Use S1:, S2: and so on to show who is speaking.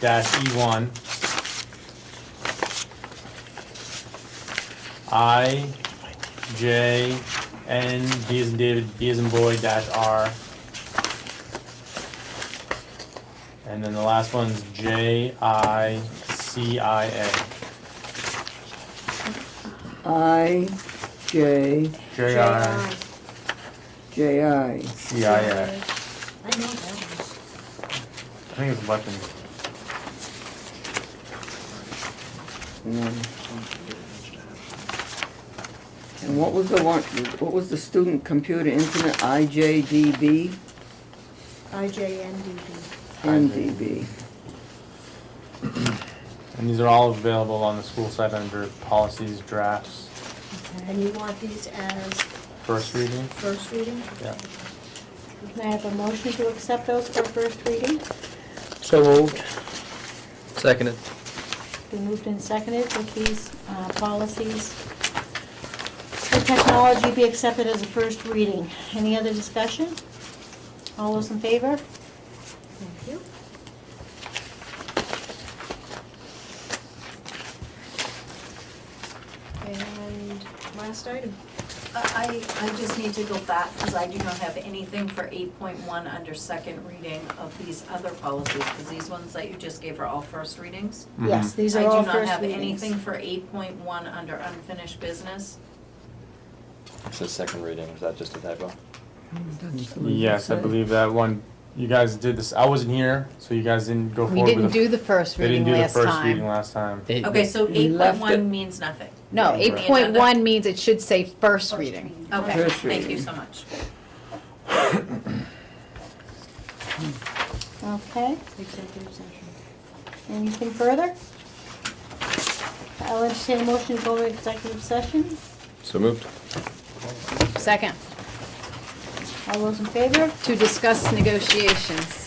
S1: dash E one. I, J, N, D as in David, D as in boy, dash R. And then the last one's J, I, C, I, A.
S2: I, J,
S1: J, I,
S2: J, I.
S1: C, I, A.
S3: I know that one.
S1: I think it's a bunch of
S2: And what was the one, what was the student computer internet, IJDB,
S3: IJNDB.
S2: MDB?
S1: And these are all available on the school site under policies, drafts,
S3: And you want these as
S1: first reading.
S3: first reading?
S1: Yeah.
S3: Can I have a motion to accept those for first reading?
S4: So moved.
S5: Seconded.
S3: Been moved and seconded that these uh, policies for technology be accepted as a first reading. Any other discussion? All those in favor? Thank you. And last item.
S6: I, I just need to go back, because I do not have anything for eight point one under second reading of these other policies, because these ones that you just gave are all first readings.
S3: Yes,
S1: Mhm.
S3: these are all
S6: I do not
S3: first
S6: have
S3: readings.
S6: anything for eight point one under unfinished business.
S5: It's the second reading, is that just a typo?
S1: Yes, I believe that one, you guys did this, I wasn't here, so you guys didn't go
S7: We
S1: forward
S7: didn't
S1: with the.
S7: do the first
S1: They didn't
S7: reading
S1: do the
S7: last
S1: first reading
S7: time.
S1: last time.
S4: It-
S6: Okay,
S2: You
S6: so eight point
S2: left it-
S6: one means nothing.
S7: No,
S1: Right.
S7: eight point one means it should say first reading.
S6: Okay,
S2: First
S6: thank you
S2: reading.
S6: so much.
S3: Okay. Executive session. Anything further? I'll entertain a motion to go to executive session.
S5: So moved.
S7: Second,
S3: All those in favor?
S7: to discuss negotiations.